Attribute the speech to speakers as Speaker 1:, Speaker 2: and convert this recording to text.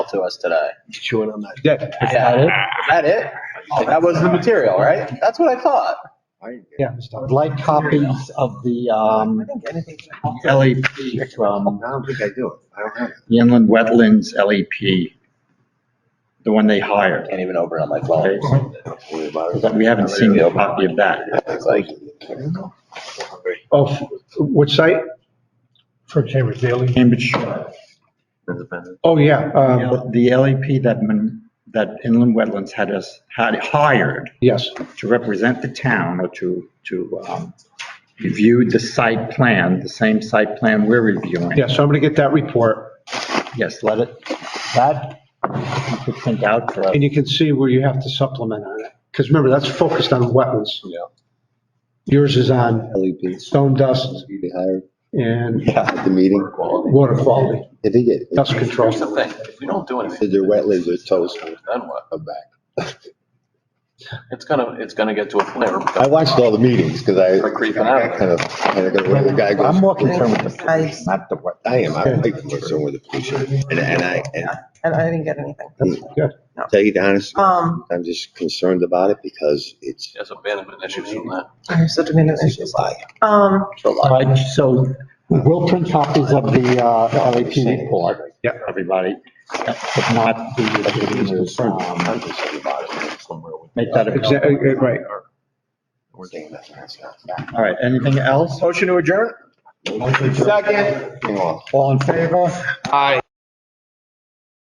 Speaker 1: to us today.
Speaker 2: Chewing on that.
Speaker 3: Yeah,
Speaker 1: Is that it? Oh, that was the material, right? That's what I thought.
Speaker 3: yeah.
Speaker 4: Like copies of the um, LEP from
Speaker 2: I don't think I do it. I don't have it.
Speaker 4: the Inland um, Wetlands LEP, the one they hired.
Speaker 1: Can't even open it on my phone. Worry about it.
Speaker 4: But we haven't seen a copy of that.
Speaker 1: It's like,
Speaker 3: Oh, what site? For Cambridge Daily.
Speaker 4: Cambridge, Uh,
Speaker 3: Oh, yeah, um,
Speaker 4: the LEP that, Mon- that Inland Wetlands had us, had hired
Speaker 3: yes.
Speaker 4: to represent the town or to, to um, review the site plan, the same site plan we're reviewing.
Speaker 3: Yeah, so I'm going to get that report,
Speaker 4: Yes, let it, that you could print out for us.
Speaker 3: and you can see where you have to supplement on it. Because remember, that's focused on wetlands.
Speaker 5: Yeah.
Speaker 3: Yours is on
Speaker 5: LEPs,
Speaker 3: stone dust
Speaker 5: you get hired
Speaker 3: and
Speaker 5: at the meeting.
Speaker 3: water quality,
Speaker 5: If they get,
Speaker 3: dust control.
Speaker 6: Here's the thing, if we don't do anything.
Speaker 5: if their wetlands are toast,
Speaker 6: Then what?
Speaker 5: I'm back.
Speaker 6: It's gonna, it's gonna get to a point
Speaker 5: I
Speaker 6: where.
Speaker 5: watched all the meetings because I,
Speaker 6: Like creeping out.
Speaker 5: I kind of, kind of got where the guy
Speaker 4: I'm
Speaker 5: goes.
Speaker 4: more concerned with the, police, not the wetlands.
Speaker 5: I am, I'm like concerned with the pollution and, and I, and
Speaker 7: And I didn't get anything.
Speaker 5: to tell you the honest,
Speaker 7: Um,
Speaker 5: I'm just concerned about it because it's,
Speaker 6: There's abandonment issues from that.
Speaker 7: I have such diminished issues. Um,
Speaker 4: All right, so we'll print copies of the uh, LAP report.
Speaker 3: Yeah.
Speaker 4: Everybody, if not, the reviewers,
Speaker 5: I'm
Speaker 4: um,
Speaker 5: concerned about it somewhere with.
Speaker 4: make that available.
Speaker 3: Exactly, eh, right.
Speaker 5: We're thinking that's not, it's not.
Speaker 4: All right, anything else?
Speaker 1: motion to adjourn?
Speaker 5: Second. Hang on.
Speaker 4: All in favor?
Speaker 5: Aye.